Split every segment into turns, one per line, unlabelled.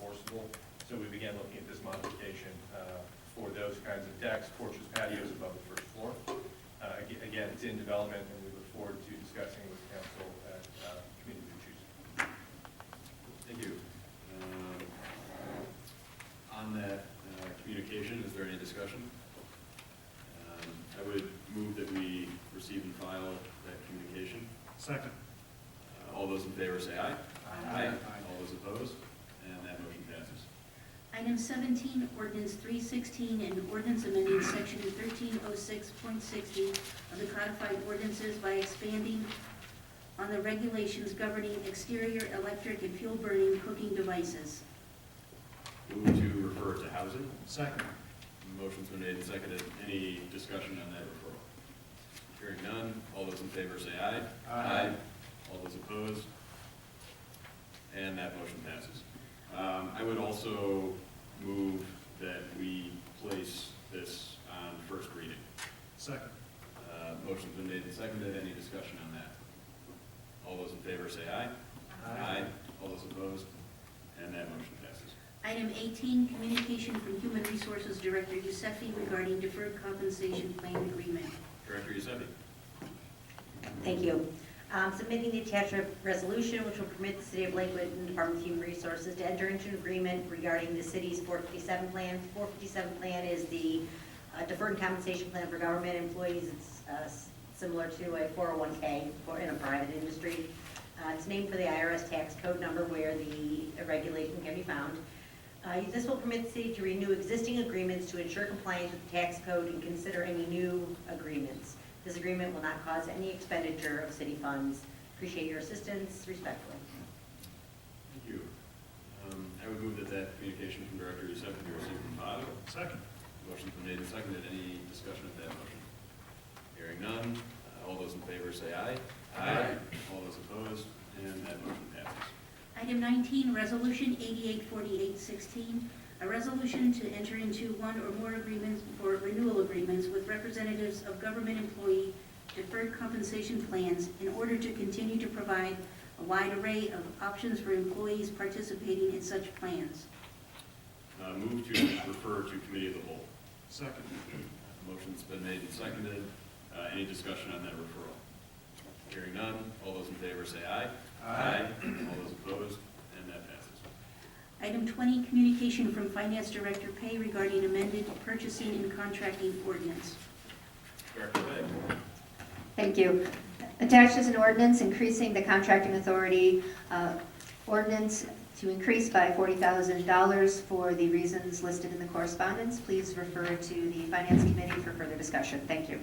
possible. So we began looking at this modification uh, for those kinds of decks, porches, patios above the first floor. Uh, aga- Again, it's in development, and we look forward to discussing with council at uh, committee of your choosing.
Thank you. Um, On that uh, communication, is there any discussion? Um, I would move that we receive and file that communication.
Second.
Uh, All those in favor say aye.
Aye.
All those opposed? And that motion passes.
Item 17, ordinance 316, and ordinance amending section 1306.60 of the codified ordinances by expanding on the regulations governing exterior electric and fuel-burning cooking devices.
Move to refer to housing.
Second.
Motion's been made and seconded. Any discussion on that referral? Hearing none. All those in favor say aye.
Aye.
All those opposed? And that motion passes. Um, I would also move that we place this on first reading.
Second.
Uh, Motion's been made and seconded. Any discussion on that? All those in favor say aye. All those opposed? And that motion passes.
Item 18, communication from Human Resources Director Yusefi regarding deferred compensation plan agreement.
Director Yusefi.
Thank you. Um, Submitting the attached re- resolution, which will permit the City of Lakewood and Department of Human Resources to enter into an agreement regarding the city's 457 plan. 457 plan is the uh, deferred compensation plan for government employees. It's uh, s- similar to a 401K for, in a private industry. Uh, It's named for the IRS tax code number where the regulation can be found. Uh, This will permit the city to renew existing agreements to ensure compliance with the tax code and consider any new agreements. This agreement will not cause any expenditure of city funds. Appreciate your assistance, respectfully.
Thank you. Um, I would move that that communication from Director Yusefian be received and filed.
Second.
Motion's been made and seconded. Any discussion of that motion? Hearing none. Uh, All those in favor say aye.
Aye.
All those opposed, and that motion passes.
Item 19, Resolution 884816, a resolution to enter into one or more agreements or renewal agreements with representatives of government employee deferred compensation plans in order to continue to provide a wide array of options for employees participating in such plans.
Uh, Move to refer to committee of the whole.
Second.
Motion's been made and seconded. Uh, Any discussion on that referral? Hearing none. All those in favor say aye. All those opposed, and that passes.
Item 20, communication from Finance Director Pay regarding amended purchasing and contracting ordinance.
Director Begg.
Thank you. Attached is an ordinance increasing the contracting authority uh, ordinance to increase by $40,000 for the reasons listed in the correspondence. Please refer to the Finance Committee for further discussion. Thank you.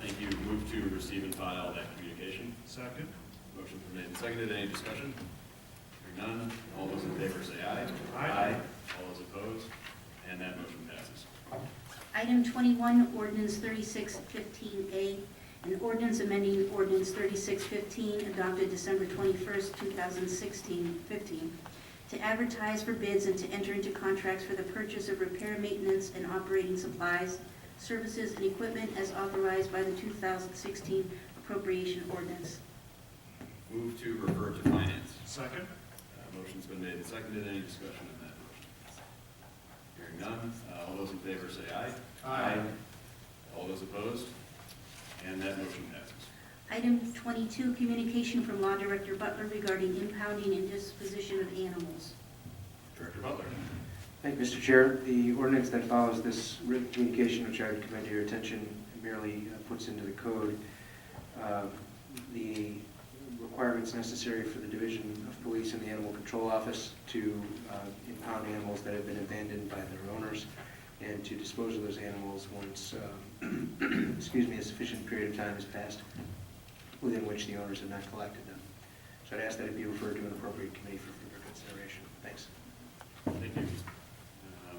Thank you. Move to receive and file that communication.
Second.
Motion been made and seconded. Any discussion? Hearing none. All those in favor say aye.
Aye.
All those opposed? And that motion passes.
Item 21, ordinance 3615A, an ordinance amending ordinance 3615 adopted December 21st, 2016, 15, to advertise for bids and to enter into contracts for the purchase of repair, maintenance, and operating supplies, services, and equipment as authorized by the 2016 appropriation ordinance.
Move to refer to finance.
Second.
Uh, Motion's been made and seconded. Any discussion on that motion? Hearing none. Uh, All those in favor say aye.
Aye.
All those opposed? And that motion passes.
Item 22, communication from Law Director Butler regarding impounding and disposition of animals.
Director Butler.
Thank you, Mr. Chair. The ordinance that follows this written communication, which I would commend to your attention, merely uh, puts into the code uh, the requirements necessary for the Division of Police and the Animal Control Office to uh, impound animals that have been abandoned by their owners and to dispose of those animals once, um, excuse me, a sufficient period of time has passed within which the owners have not collected them. So I'd ask that it be referred to an appropriate committee for further consideration. Thanks.
Thank you. Um,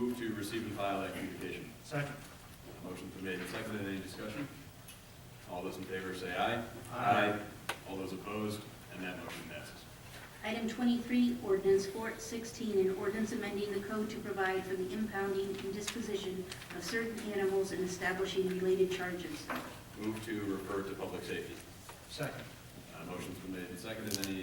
Move to receive and file that communication.
Second.
Motion's been made and seconded. Any discussion? All those in favor say aye.
Aye.
All those opposed, and that motion passes.
Item 23, ordinance 416, an ordinance amending the code to provide for the impounding and disposition of certain animals and establishing related charges.
Move to refer to public safety.
Second.
Uh, Motion's been made and seconded. Any